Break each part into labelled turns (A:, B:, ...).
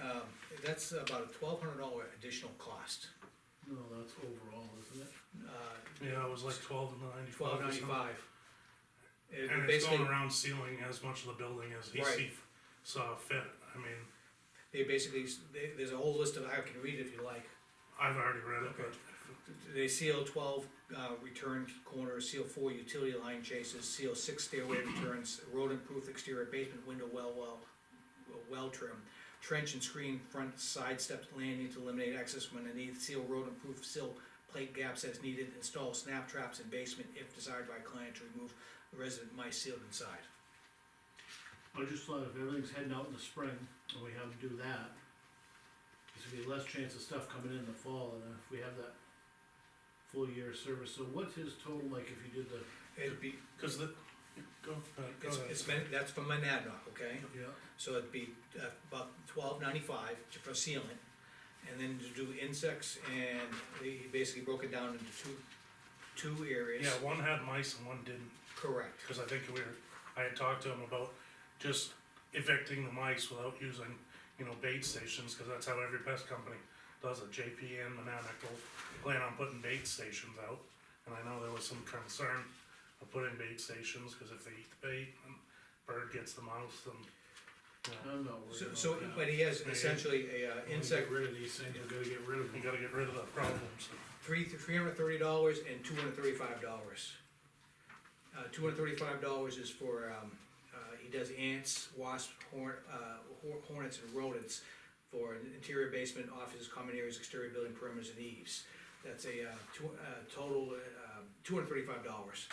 A: Um, that's about a twelve hundred dollar additional cost. Uh,
B: No, that's overall, isn't it?
C: Yeah, it was like twelve ninety-five.
A: Twelve ninety-five.
C: And it's going around sealing as much of the building as he
A: Right.
C: see, saw fit. I mean,
A: They basically, s- they, there's a whole list of, I can read it if you like.
C: I've already read it,
A: Okay.
C: but
A: They seal twelve, uh, return corners, seal four utility line chases, seal six stairway returns, road improved exterior basement window well well, well trim, trench and screen front side steps landing to eliminate access when needed, seal road improved, seal plate gaps as needed, install snap traps in basement if desired by client to remove resident mice sealed inside.
B: I just thought if everything's heading out in the spring, and we have to do that, there's gonna be less chance of stuff coming in the fall, and if we have that full year of service, so what's his total, like, if you did the,
A: It'd be,
C: because the go, uh, go
A: it's,
C: ahead.
A: it's, been- that's from Monadnock, okay?
B: yeah,
A: So it'd be uh, about twelve ninety-five for sealant, and then to do insects, and he basically broke it down into two, two areas.
C: yeah, one had mice and one didn't.
A: Correct,
C: Because I think we were, I had talked to him about just evicting the mice without using, you know, bait stations, because that's how every pest company does it. JP and Manamac will plan on putting bait stations out, and I know there was some concern of putting bait stations, because if they eat the bait, and bird gets the mouse, then, you know,
B: I'm not worried
A: so,
B: about that.
A: so, but he has essentially a uh,
B: When we
A: insect,
B: Get rid of these things, we gotta get rid of
C: you
B: them,
C: gotta get rid of the problems.
A: three, three hundred thirty dollars and two hundred thirty-five dollars. Uh, two hundred thirty-five dollars is for, um, uh, he does ants, wasps, horn, uh, hor- hornets and rodents for an interior basement, offices, common areas, exterior building perimeters and eaves. That's a, uh, two, uh, total, uh, two hundred thirty-five dollars.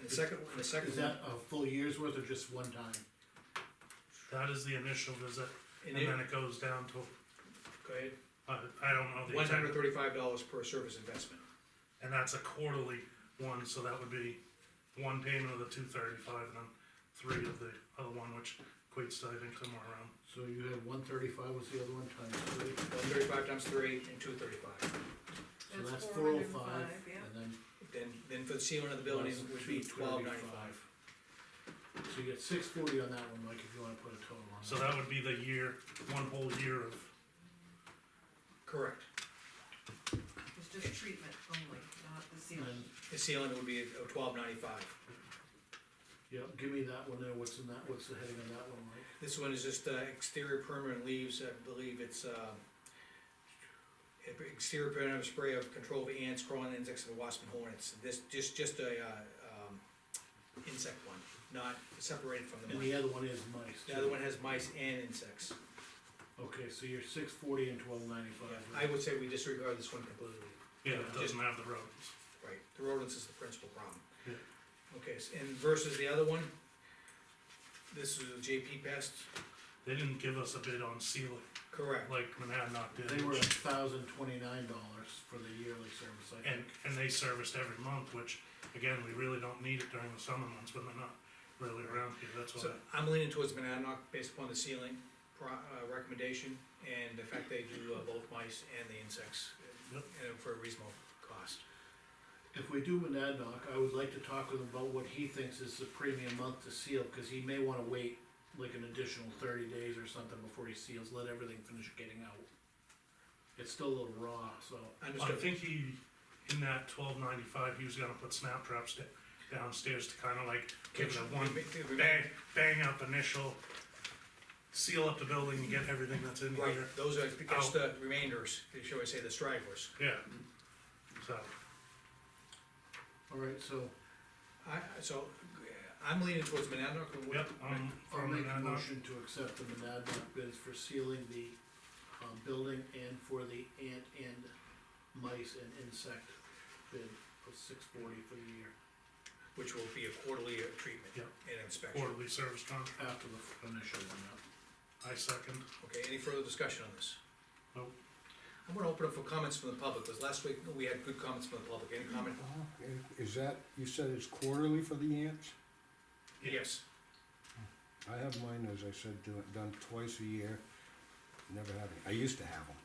A: And the second, and the second
B: is
A: one,
B: that a full year's worth or just one time?
C: That is the initial visit, and
A: and it,
C: then it goes down to,
A: go ahead,
C: I, I don't know the
A: one
C: exact.
A: hundred thirty-five dollars per service investment.
C: And that's a quarterly one, so that would be one payment of the two thirty-five and then three of the other one, which equates to, I think, somewhere around.
B: So you had one thirty-five was the other one times three,
A: One thirty-five times three and two thirty-five.
B: so that's
D: That's
B: four oh
D: 405,
B: five,
D: yeah.
B: and then.
A: Then, then for the ceiling of the building
B: plus
A: would be twelve ninety-five.
B: 235. So you get six forty on that one, Mike, if you wanna put a total on it.
C: So that would be the year, one whole year of,
A: Correct.
D: It's just treatment only, not the
B: And
D: sealant.
B: then,
A: The ceiling would be twelve ninety-five.
B: yeah, give me that one there, what's in that, what's the heading on that one, Mike?
A: This one is just uh, exterior permanent leaves, I believe it's, uh, exterior permanent spray of control of ants, crawling insects, and wasps and hornets. This, just, just a, uh, um, insect one, not separated from the
B: And
A: mice.
B: the other one is mice.
A: The other
B: too.
A: one has mice and insects.
B: Okay, so you're six forty and twelve ninety-five.
A: I would say we disregard this one completely.
C: yeah, it doesn't have the roads.
A: Right, the rodents is the principal problem.
C: Yeah.
A: Okay, s- and versus the other one, this is a JP pest,
C: They didn't give us a bid on sealing,
A: correct.
C: like Monadnock did.
B: They were a thousand twenty-nine dollars for the yearly service, I
C: And,
B: think.
C: and they serviced every month, which, again, we really don't need it during the summer months when they're not really around here, that's why.
A: So I'm leaning towards Monadnock based upon the ceiling pro, uh, recommendation and the fact they do uh, both mice and the insects.
C: Yep.
A: And for a reasonable cost.
B: If we do an ad hoc, I would like to talk with him about what he thinks is the premium month to seal, cause he may wanna wait like an additional thirty days or something before he seals, let everything finish getting out. It's still a little raw, so,
C: I
A: Understood,
C: think he, in that twelve ninety-five, he was gonna put snap traps da- downstairs to kinda like give it a one bang, bang up initial, seal up the building and get everything that's in
A: right,
C: here.
A: those are just the remainders, shall I say, the stragglers.
C: Yeah. So,
B: alright, so
A: I, so, uh, I'm leaning towards Monadnock. and what-
C: yep, um,
B: I'll
C: from
B: make a
C: that, note,
B: motion to accept the Monadnock bids for sealing the, um, building and for the ant and mice and insect bid of six forty for the year,
A: Which will be a quarterly uh, treatment
C: Yep.
A: and inspection.
C: quarterly service contract,
B: after the initial one, yeah.
C: I second,
A: Okay, any further discussion on this?
C: Nope.
A: I'm gonna open up for comments from the public, because last week we had good comments from the public, any comment?
E: Uh, Is that, you said it's quarterly for the ants?
C: Yeah.
A: Yes,
E: I have mine, as I said, do it, done twice a year, never had any, I used to have them.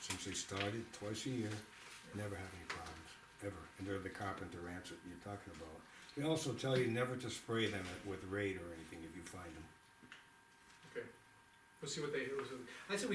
E: Since they started, twice a year, never had any problems, ever, and they're the carpenter ants that you're talking about. They also tell you never to spray them with raid or anything if you find them.
A: okay. We'll see what they, I said we